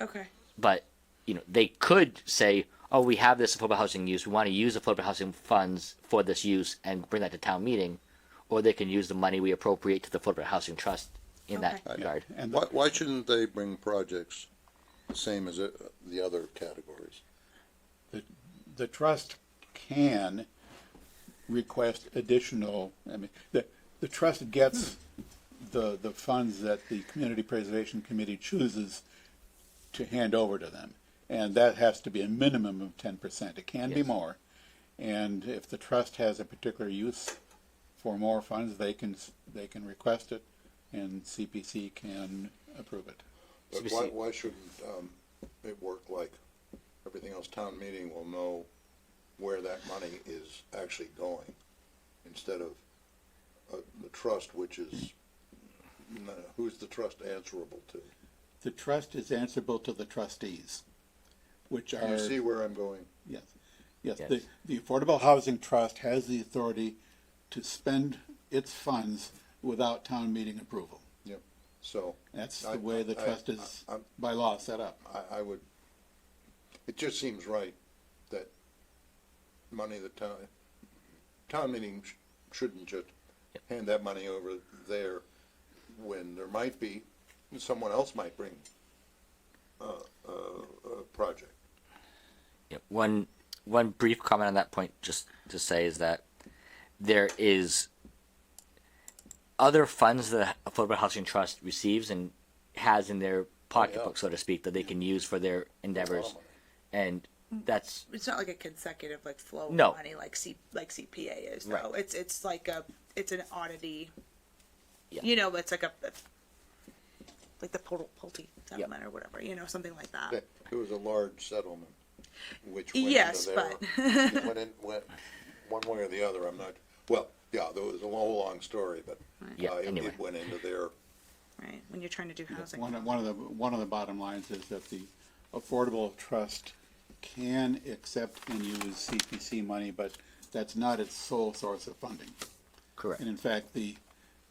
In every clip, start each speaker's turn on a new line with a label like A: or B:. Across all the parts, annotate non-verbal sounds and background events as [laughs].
A: Okay.
B: but you know they could say oh we have this affordable housing use we want to use affordable housing funds for this use and bring that to town meeting or they can use the money we appropriate to the affordable housing trust in that
A: Okay.
B: regard
C: And
D: Why, why shouldn't they bring projects the same as uh, the other categories?
C: the trust can request additional, I mean, the, the trust gets the, the funds that the Community Preservation Committee chooses to hand over to them. And that has to be a minimum of ten percent. It can be
B: Yes.
C: more. And if the trust has a particular use for more funds, they can, s- they can request it and CPC can approve it.
D: But
B: CPC.
D: why, why shouldn't, um, it work like everything else, town meeting will know where that money is actually going, instead of, uh, the trust, which is, no, who's the trust answerable to?
C: The trust is answerable to the trustees, which are.
D: You see where I'm going?
C: Yes, yes,
B: Yes.
C: the, the Affordable Housing Trust has the authority to spend its funds without town meeting approval.
D: Yep. So,
C: That's
D: I-
C: the way the
D: I-
C: trust is
D: I- I'm-
C: by law set up.
D: I, I would, it just seems right that money the town, town meeting sh- shouldn't just hand that money over there when there might be, someone else might bring a, a, a project.
B: Yeah, one one brief comment on that point just to say is that there is other funds that the affordable housing trust receives and has in their pocketbook so to speak that they can use for their endeavors and that's
A: It's not like a consecutive like flow of
B: No.
A: money like C like CPA is
B: Right.
A: though. It's it's like a it's an oddity.
B: Yeah.
A: You know, it's like a, like the Pol- Pulte settlement or whatever. You know, something like that.
D: That- It was a large settlement, which went
A: Yes,
D: into
A: but
D: their. it went in, went one way or the other, I'm not, well, yeah, there was a whole long story, but
B: Yeah,
D: uh, it-
B: anyway.
D: it went into their.
A: right when you're trying to do housing.
C: One, of- one of the, one of the bottom lines is that the Affordable Trust can accept and use CPC money, but that's not its sole source of funding.
B: correct
C: And in fact, the,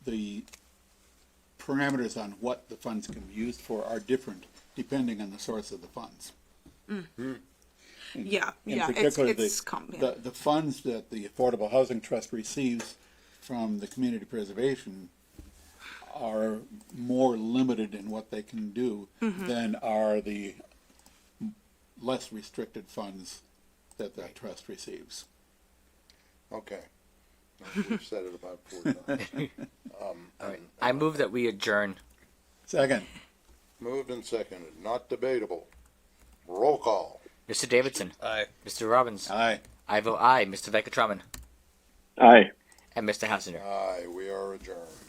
C: the parameters on what the funds can be used for are different depending on the source of the funds.
A: yeah,
C: In
A: yeah, it's
C: particular, the-
A: it's com- yeah.
C: The, the funds that the Affordable Housing Trust receives from the community preservation are more limited in what they can do
A: Mm-hmm.
C: than are the less restricted funds that the trust receives.
D: Okay. We've [laughs] said it about four times.
B: All right. i move that we adjourn
C: Second,
D: Moved and seconded, not debatable. Roll call.
B: mr davidson
E: Aye.
B: mr robbins
C: aye.
B: i vote aye mr vecatraman
F: Aye.
B: and mr hassinger
D: Aye, we are adjourned.